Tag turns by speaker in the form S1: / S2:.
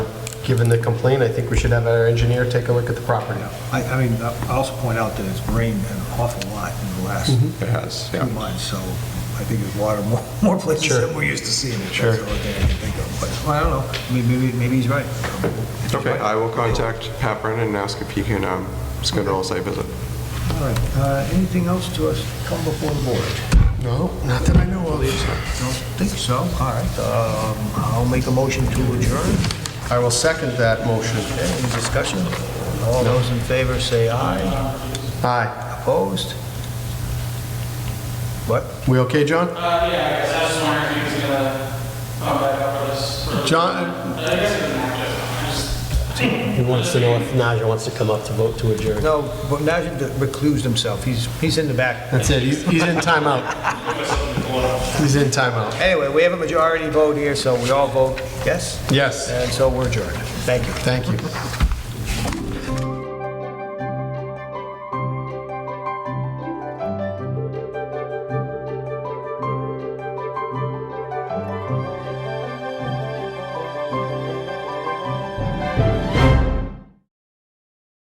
S1: given the complaint, I think we should have our engineer take a look at the property.
S2: I, I mean, I also point out that it's rained an awful lot in the last
S3: It has,
S2: two
S3: Mm-hmm. yeah.
S2: months, so I think there's water more, more places
S1: Sure.
S2: than we're used to seeing. it.
S1: Sure.
S2: That's the only thing I can think of, but, well, I don't know, I mean, maybe, maybe he's right. If he's
S3: Okay,
S2: right,
S3: I will contact Pat Brennan and ask if he can um, schedule a site visit.
S2: All right, Uh, anything else to us come before the board?
S1: No, not that I know of.
S2: Don't think so, all right, um, I'll make a motion to adjourn.
S1: I will second that motion.
S2: Okay, any discussion? All those in favor say aye.
S1: Aye.
S2: Opposed? What?
S1: We okay, John?
S4: Uh, yeah, I guess I was just wondering if he was gonna come back up for this. for-
S1: John?
S4: I guess it doesn't have to. I just-
S5: He wants to know if Najah wants to come up to vote to adjourn.
S2: No, but Najim reclused himself, he's, he's in the back.
S1: That's it, he's he's in timeout. He's in timeout.
S2: Anyway, we have a majority vote here, so we all vote yes,
S1: Yes,
S2: and so we're adjourned. Thank you.
S1: thank you.